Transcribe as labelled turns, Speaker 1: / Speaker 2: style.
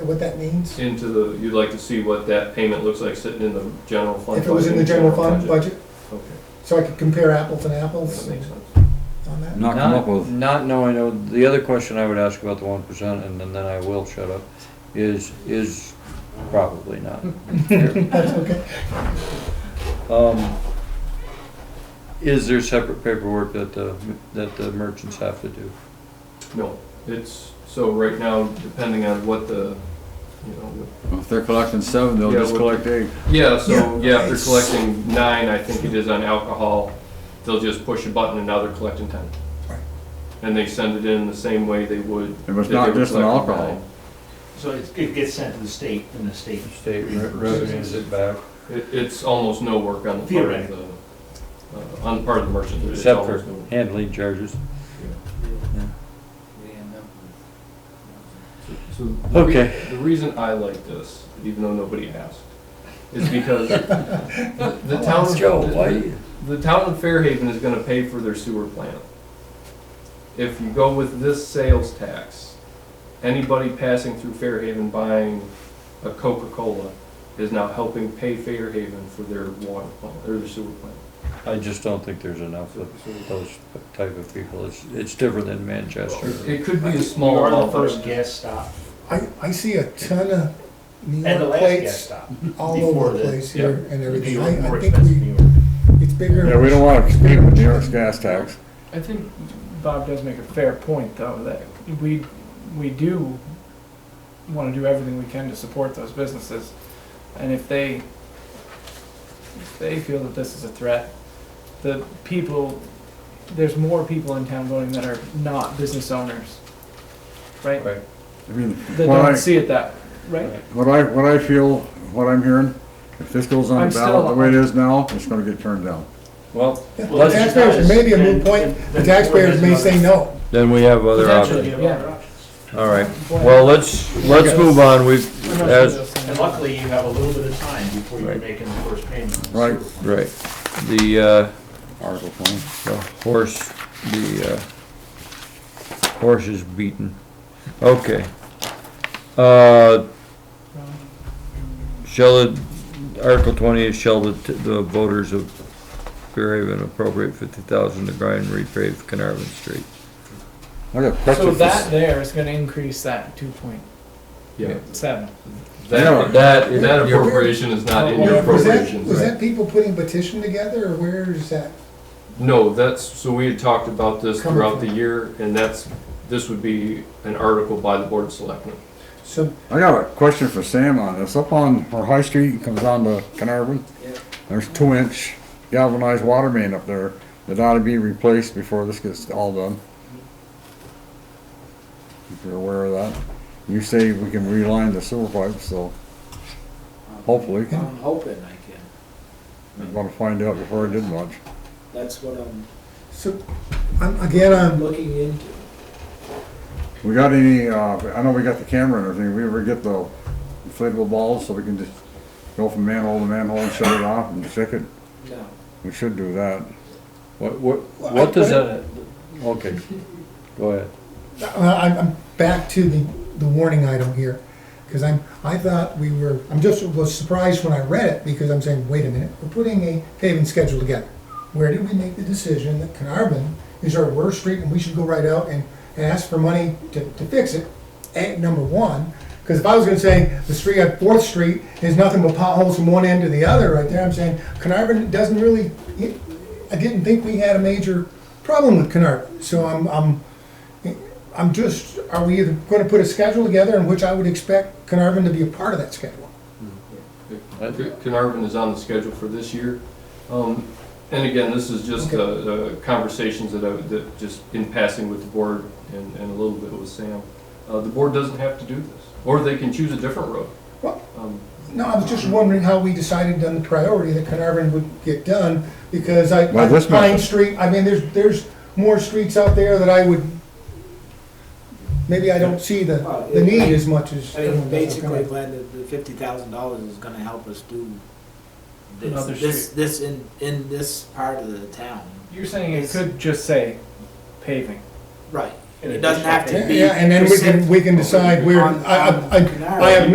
Speaker 1: what that means?
Speaker 2: into the, you'd like to see what that payment looks like sitting in the general fund?
Speaker 1: If it was in the
Speaker 2: budget,
Speaker 1: general fund budget,
Speaker 2: Okay,
Speaker 1: so I could compare apples and apples
Speaker 2: that makes sense.
Speaker 1: on that?
Speaker 3: Not come up
Speaker 4: Not,
Speaker 3: with,
Speaker 4: not knowing, uh, the other question I would ask about the one percent, and then then I will shut up, is, is probably not.
Speaker 1: That's okay.
Speaker 4: Um, Is there separate paperwork that the, that the merchants have to do?
Speaker 2: No, it's, so right now, depending on what the, you know, what
Speaker 3: if they're collecting seven, they'll
Speaker 2: Yeah,
Speaker 3: just
Speaker 2: what-
Speaker 3: collect eight.
Speaker 2: Yeah, so,
Speaker 1: Yeah.
Speaker 2: yeah, if they're collecting nine, I think it is on alcohol, they'll just push a button and now they're collecting ten.
Speaker 1: Right.
Speaker 2: And they send it in the same way they would.
Speaker 3: It was
Speaker 2: if they
Speaker 3: not
Speaker 2: were
Speaker 3: just on
Speaker 2: collecting
Speaker 3: alcohol.
Speaker 2: nine.
Speaker 5: So it's- it gets sent to the state, and the state
Speaker 4: State re- revenues it back,
Speaker 2: It, it's almost no work on the part of the,
Speaker 5: Theoretically.
Speaker 2: uh, on the part of the merchant. It's
Speaker 4: except for
Speaker 2: almost no work.
Speaker 4: handling charges.
Speaker 2: So the re-
Speaker 4: Okay.
Speaker 2: The reason I like this, even though nobody asked, is because the- the town. of-
Speaker 4: Oh, Joe,
Speaker 2: the-
Speaker 4: why you?
Speaker 2: The town of Fairhaven is gonna pay for their sewer plant. If you go with this sales tax, anybody passing through Fairhaven buying a Coca-Cola is now helping pay Fairhaven for their water plant, or their sewer plant.
Speaker 4: I just don't think there's enough of those type of people. It's, it's different than Manchester.
Speaker 2: It could be a
Speaker 5: You
Speaker 2: small
Speaker 5: are the
Speaker 2: amount, but
Speaker 5: first gas stop,
Speaker 1: I, I see a ton of New
Speaker 5: and the
Speaker 1: York
Speaker 5: last gas
Speaker 1: plates
Speaker 5: stop.
Speaker 1: all
Speaker 5: before
Speaker 1: over the
Speaker 5: the-
Speaker 1: place here and
Speaker 5: New
Speaker 1: everything.
Speaker 5: York,
Speaker 1: I,
Speaker 5: more
Speaker 1: I think
Speaker 5: expensive
Speaker 1: we,
Speaker 5: New York.
Speaker 1: it's bigger.
Speaker 3: Yeah, we don't wanna compete with New York's gas tax.
Speaker 6: I think Bob does make a fair point, though, that we, we do want to do everything we can to support those businesses. And if they, if they feel that this is a threat, the people, there's more people in town voting that are not business owners, right?
Speaker 4: Right.
Speaker 3: I mean,
Speaker 6: That
Speaker 3: what I,
Speaker 6: don't see it that, right?
Speaker 3: what I, what I feel, what I'm hearing, if this goes on
Speaker 6: I'm
Speaker 3: the ballot the
Speaker 6: still-
Speaker 3: way it is now, it's gonna get turned down.
Speaker 4: Well,
Speaker 1: The
Speaker 5: Well,
Speaker 4: Let's-
Speaker 1: taxpayers may be a moot point,
Speaker 5: then-
Speaker 1: the
Speaker 5: then-
Speaker 1: taxpayers may say no.
Speaker 4: then we have other options.
Speaker 6: Potentially.
Speaker 5: Potentially,
Speaker 6: Yeah.
Speaker 5: other options.
Speaker 4: All right. Well, let's, let's move on. We've,
Speaker 6: I'm not sure
Speaker 4: as,
Speaker 6: those things-
Speaker 5: And luckily, you have a little bit of time before you're
Speaker 4: Right.
Speaker 5: making the first payment.
Speaker 3: Right.
Speaker 4: Right, the, uh,
Speaker 3: Article twenty.
Speaker 4: the horse, the, uh, horse is beaten. Okay. Uh, shall the, Article twenty is shall the, t- the voters of Fairhaven appropriate fifty thousand to grind and repave Carnarvon Street?
Speaker 3: I got a
Speaker 6: So
Speaker 3: question for
Speaker 6: that
Speaker 3: s-
Speaker 6: there is going to increase that two point
Speaker 2: yeah.
Speaker 6: seven.
Speaker 3: Yeah.
Speaker 2: That, that,
Speaker 1: Yeah.
Speaker 2: that appropriation is not in your
Speaker 1: Was that,
Speaker 2: appropriations.
Speaker 1: was Oh, that people putting petition together or where is that?
Speaker 2: No, that's, so we had talked about this
Speaker 1: Coming
Speaker 2: throughout the
Speaker 1: from-
Speaker 2: year, and that's, this would be an article by the Board of Selectmen.
Speaker 1: So
Speaker 3: I got a question for Sam on this. Up on, where High Street comes down to Carnarvon, there's two inch galvanized water main up there that ought to be replaced before this gets all done. If you're aware of that. You say we can reline the sewer pipe, so hopefully,
Speaker 7: I'm hoping I can.
Speaker 3: I'm gonna find out before I did much.
Speaker 7: That's what I'm
Speaker 1: So, I'm, again, I'm,
Speaker 7: looking into.
Speaker 3: We got any, uh, I know we got the camera and everything, we ever get the inflatable balls so we can just go from manhole to manhole and shut it off and check it?
Speaker 7: No.
Speaker 3: We should do that.
Speaker 4: What, what, what does that, okay, go ahead.
Speaker 1: I'm, I'm back to the, the warning item here. Cause I'm, I thought we were, I'm just was surprised when I read it because I'm saying, wait a minute, we're putting a paving schedule together. Where did we make the decision that Carnarvon is our worst street and we should go right out and, and ask for money to, to fix it? At number one, cause if I was gonna say the street on Fourth Street is nothing but potholes from one end to the other right there, I'm saying Carnarvon doesn't really, it- I didn't think we had a major problem with Carnarvon. So I'm, I'm I'm just, are we either gonna put a schedule together in which I would expect Carnarvon to be a part of that schedule?
Speaker 2: Car- Carnarvon is on the schedule for this year. Um, And again, this is just uh, uh, conversations that I, that just in passing with the board and, and a little bit with Sam. Uh, The board doesn't have to do this, or they can choose a different road.
Speaker 1: Well-
Speaker 2: Um,
Speaker 1: No, I was just wondering how we decided on the priority that Carnarvon would get done, because I,
Speaker 3: Well, this
Speaker 1: Pine
Speaker 3: must-
Speaker 1: Street, I mean, there's, there's more streets out there that I would, maybe I don't see the, the need as much as.
Speaker 7: I mean, basically, glad that the fifty thousand dollars is gonna help us do this,
Speaker 6: Another
Speaker 7: this, this in, in this part of the town.
Speaker 6: You're saying it could just say paving.
Speaker 7: Right.
Speaker 5: an
Speaker 7: It doesn't have
Speaker 5: additional
Speaker 7: to
Speaker 5: payment.
Speaker 7: be.
Speaker 1: Yeah, and then we can, we can decide where,
Speaker 7: on-
Speaker 1: I, I, I
Speaker 7: on-
Speaker 1: I have